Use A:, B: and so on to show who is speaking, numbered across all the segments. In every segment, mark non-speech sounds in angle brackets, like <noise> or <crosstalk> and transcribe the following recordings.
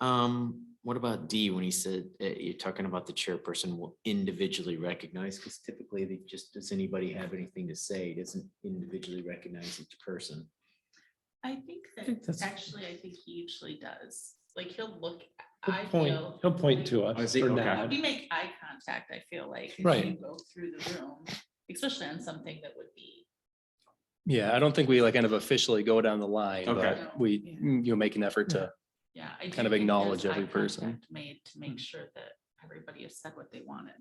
A: Um, what about D when he said, uh, you're talking about the chairperson will individually recognize? Because typically they just, does anybody have anything to say? It Doesn't individually recognize each person.
B: I think
C: think
B: that,
C: that's-
B: actually, I think he usually does, like, he'll look, I
C: He'll point,
B: feel.
C: he'll point
B: like,
C: to
A: I
C: us
A: see,
C: or
A: okay.
C: nod.
B: We make eye contact, I feel like. if
C: Right.
B: you Go through the room, especially on something that would be,
D: Yeah, I don't think we like kind of officially go down the line,
A: Okay.
D: but we, mm,
B: Yeah.
D: you know, make an effort to,
B: yeah. I do
D: Kind of
B: think
D: acknowledge
B: there's
D: every
B: eye
D: person.
B: contact Made to
C: Hmm.
B: make sure that everybody has said what they wanted.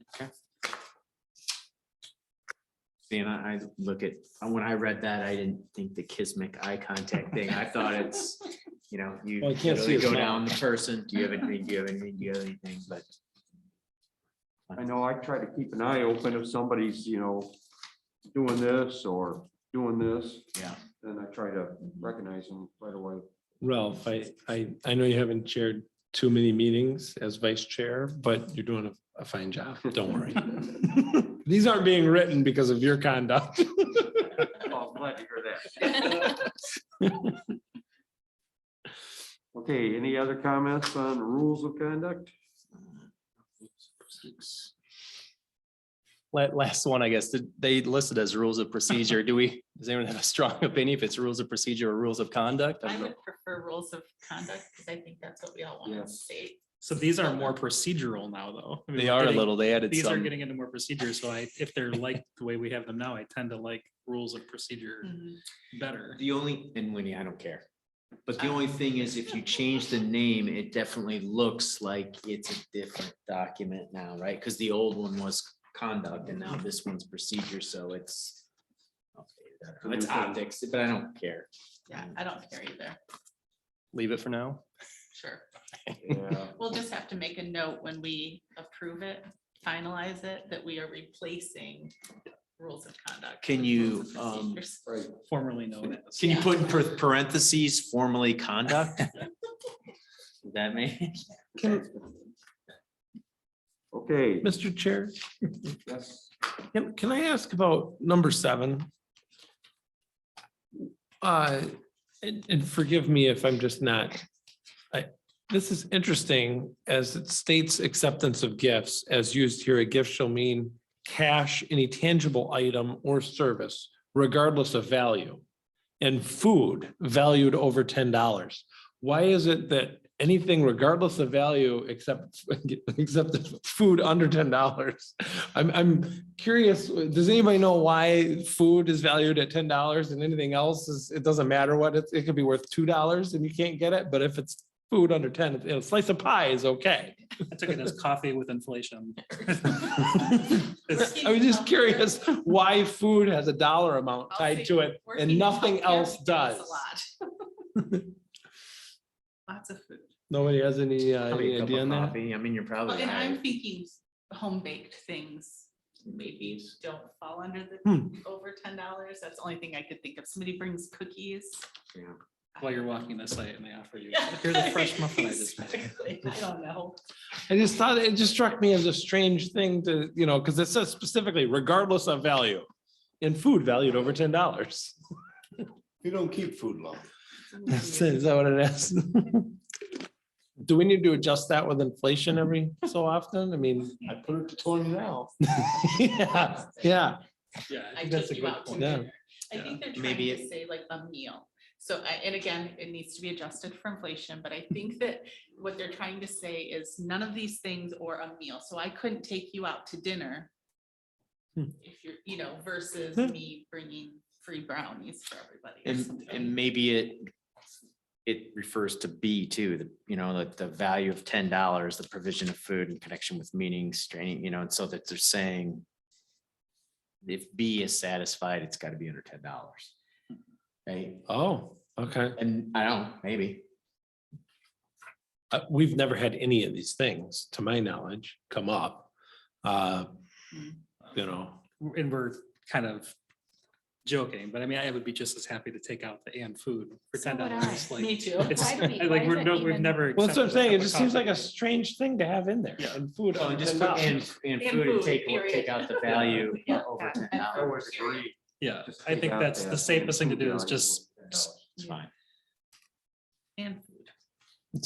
A: See, and I, I look at, and when I read that, I didn't think the kismic eye contact thing. I thought it's, you know, you
C: Well, I can't see
A: literally
C: his
A: go
C: mouth.
A: down the person. Do you have anything? Do you have anything? Do you have anything? But
E: I know I try to keep an eye open if somebody's, you know, doing this or doing this,
A: yeah.
E: then I try to recognize them right away.
C: Ralph, I, I, I know you haven't chaired too many meetings as vice chair, but you're doing a, a fine job.
A: <laughs>
C: Don't worry. These aren't being written because of your conduct.
E: Well, I'm glad to hear that. <laughs> Okay, any other comments on rules of conduct?
D: la- last one, I guess, did they listed as rules of procedure. Do we, does anyone have a strong <laughs> opinion if it's rules of procedure or rules of conduct? I
B: I
D: don't know.
B: would prefer rules of conduct, because I think that's what we all want
E: Yeah.
B: to state.
F: So these are more procedural now, though. I mean,
D: They
F: we're
D: are a
F: getting-
D: little, they added
F: These are
D: some,
F: getting into more procedure, so I, if they're like the way we have them now, I tend to like rules of procedure
C: Mm-hmm.
F: better.
A: The only, and Winnie, I don't care. But the only thing is, if you change the name, it definitely looks like it's a different document now, right? Because the old one was conduct and now this one's procedure, so it's. It's optics, but I don't care.
B: Yeah, I don't care either,
D: leave it for now.
B: sure.
E: Yeah.
B: We'll just have to make a note when we approve it, finalize it, that we are replacing rules of conduct.
A: Can
B: with
A: you,
B: rules of
A: um,
B: procedures.
E: Right,
F: Formerly known as.
A: Can you put in par- parentheses formally conduct? That may,
E: okay,
C: Mr. Chair,
E: yes,
C: can, can I ask about number seven? Uh, and, and forgive me if I'm just not, I, this is interesting as it states acceptance of gifts as used here, a gift shall mean cash, any tangible item or service regardless of value. And food valued over ten dollars. Why is it that anything regardless of value except, <laughs> except the food under ten dollars? I'm, I'm curious, does anybody know why food is valued at ten dollars and anything else is, it doesn't matter what, it, it could be worth two dollars and you can't get it, but if it's food under ten, you know, a slice of pie is okay.
F: I took it as coffee with inflation.
B: <laughs>
C: <laughs>
F: It's-
C: I was just curious why food has a dollar amount
B: I'll
C: tied
B: say
C: to it
B: We're
C: and
B: eating
C: nothing
B: healthier,
C: else
B: we do this
C: does.
B: a lot.
C: <laughs>
B: Lots of food.
C: Nobody has any, uh,
A: probably
C: any
A: a cup
C: idea
A: of
C: on that?
A: coffee. I mean, you're
B: Well,
A: probably.
B: And I'm
A: right.
B: thinking home baked things maybe don't fall under the
C: Hmm.
B: over ten dollars. That's the only thing I could think of. Somebody brings cookies.
A: Yeah.
F: While you're walking the site and they offer you,
B: Yeah.
F: here's
G: <laughs>
F: a fresh muffin I just made.
B: Exactly. I don't know.
C: I just thought, it just struck me as a strange thing to, you know, because it says specifically regardless of value. And food valued over ten dollars.
H: You don't keep food long.
C: Is that what it is? Do we need to adjust that with inflation every so often? I mean,
H: I put it to twenty now.
C: <laughs> yeah, yeah,
F: Yeah,
B: I
F: I think that's a
B: took you
F: good
B: out to
F: point.
C: Yeah.
B: dinner. I think they're trying
A: Maybe
B: to say like a meal. So I, and again, it needs to be adjusted for inflation, but I think that what they're trying to say is none of these things or a meal. So I couldn't take you out to dinner.
C: Hmm.
B: If you're, you know, versus
C: Hmm.
B: me bringing free brownies for everybody. or
A: And,
B: something.
A: and maybe it, it refers to B too, the, you know, like the value of ten dollars, the provision of food in connection with meetings, training, you know, and so that they're saying if B is satisfied, it's gotta be under ten dollars. Right?
C: oh, okay.
A: And I don't, know, maybe.
C: Uh, we've never had any of these things, to my knowledge, come up. Uh, you know,
F: And we're kind of joking, but I mean, I would be just as happy to take out the and food for
G: So
F: ten
G: would
F: dollars.
G: I.
B: Me
F: Like,
B: too.
F: it's
G: Why do we- why
F: <laughs> like,
G: is
F: we're,
G: it
F: no, we've
G: even-
F: never.
C: well, that's what I'm
F: accepted a
C: saying,
F: cup
C: it
F: of
C: just seems like
F: coffee.
C: a strange thing to have in there,
F: Yeah.
C: and food.
A: Well,
C: under
A: just put
C: $10.
A: and, and
B: And
A: food and
B: food,
A: take,
B: period.
A: take out the value
B: <laughs> Yeah.
A: over ten
E: I
A: dollars.
E: always agree.
F: Yeah,
E: Just
F: I
E: take
F: think
E: out
F: that's
E: that
F: the safest thing to
E: food
F: do is
E: value.
F: just
A: It's fine.
B: And